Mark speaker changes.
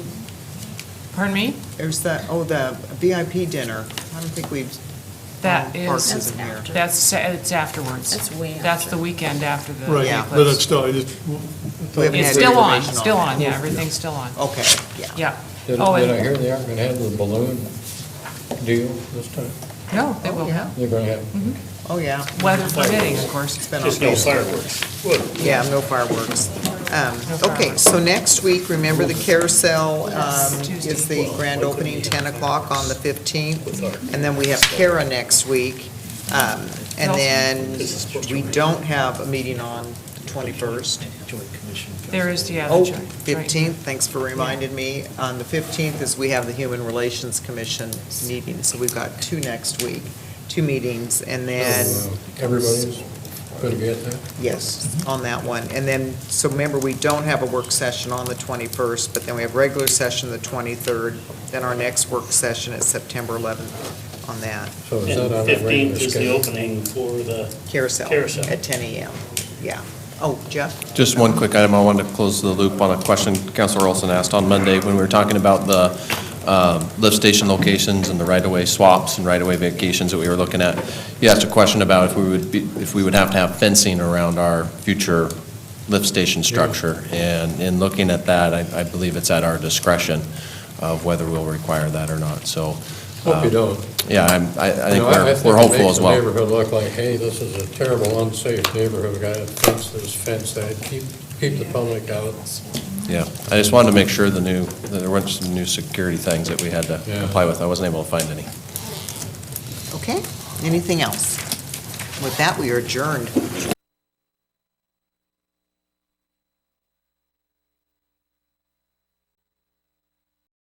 Speaker 1: Pardon me?
Speaker 2: There's the, oh, the VIP dinner. I don't think we've.
Speaker 1: That
Speaker 2: Oh, Parks
Speaker 1: is,
Speaker 2: isn't here.
Speaker 1: that's, sa- it's afterwards.
Speaker 3: That's way
Speaker 1: That's
Speaker 3: after.
Speaker 1: the weekend after the
Speaker 2: Yeah.
Speaker 4: Right, but
Speaker 1: eclipse.
Speaker 4: it's still, it is.
Speaker 2: We haven't
Speaker 1: It's
Speaker 2: had
Speaker 1: still on,
Speaker 2: information on
Speaker 1: still on,
Speaker 2: that.
Speaker 1: yeah, everything's still on.
Speaker 4: Oh.
Speaker 2: Okay, yeah.
Speaker 1: Yeah.
Speaker 5: Did did
Speaker 1: Oh, and-
Speaker 5: I hear they aren't going to have the balloon deal this time?
Speaker 1: No, they
Speaker 3: Oh,
Speaker 1: will,
Speaker 2: yeah.
Speaker 5: They're going to have,
Speaker 2: Oh, yeah.
Speaker 1: weather permitting, of course.
Speaker 2: It's been
Speaker 6: Just
Speaker 2: on-
Speaker 6: no fireworks. Good.
Speaker 2: Yeah, no fireworks. Um,
Speaker 1: No
Speaker 2: Okay, so next week, remember the carousel um,
Speaker 1: Tuesday.
Speaker 2: is the grand opening, 10 o'clock on the 15th. And then we have Kara next week. Um, And
Speaker 1: No.
Speaker 2: then we don't have a meeting on the 21st.
Speaker 1: There is, yeah. the
Speaker 2: Oh,
Speaker 1: joint- right.
Speaker 2: 15th, thanks for reminding me. On the 15th is we have the Human Relations Commission meeting, so we've got two next week, two meetings. And
Speaker 5: Oh,
Speaker 2: then
Speaker 5: uh, everybody's going to be at that?
Speaker 2: Yes, on that one. And then, so remember, we don't have a work session on the 21st, but then we have regular session the 23rd, then our next work session is September 11th on that
Speaker 5: So
Speaker 6: And
Speaker 5: is that on the regular
Speaker 6: 15th is the
Speaker 5: schedule?
Speaker 6: opening for the,
Speaker 2: carousel.
Speaker 6: Carousel.
Speaker 2: At 10 a.m., yeah. Oh, Jeff?
Speaker 7: Just one quick item, I wanted to close the loop on a question Councilor Olson asked on Monday when we were talking about the uh, lift station locations and the right-of-way swaps and right-of-way vacations that we were looking at. You asked a question about if we would be, if we would have to have fencing around our future lift station structure. And in looking at that, I, I believe it's at our discretion of whether we'll require that or not. So,
Speaker 5: Hope you don't.
Speaker 7: yeah, I'm, I, I think
Speaker 5: No,
Speaker 7: we're,
Speaker 5: think
Speaker 7: we're
Speaker 5: it
Speaker 7: hopeful
Speaker 5: makes
Speaker 7: as
Speaker 5: the
Speaker 7: well.
Speaker 5: neighborhood look like, hey, this is a terrible unsafe neighborhood, we got to fence this, fence that, keep, keep the public out.
Speaker 7: Yeah, I just wanted to make sure the new, that there weren't some new security things that we had to
Speaker 5: Yeah.
Speaker 7: comply with. I wasn't able to find any.
Speaker 2: Okay, anything else? With that, we are adjourned.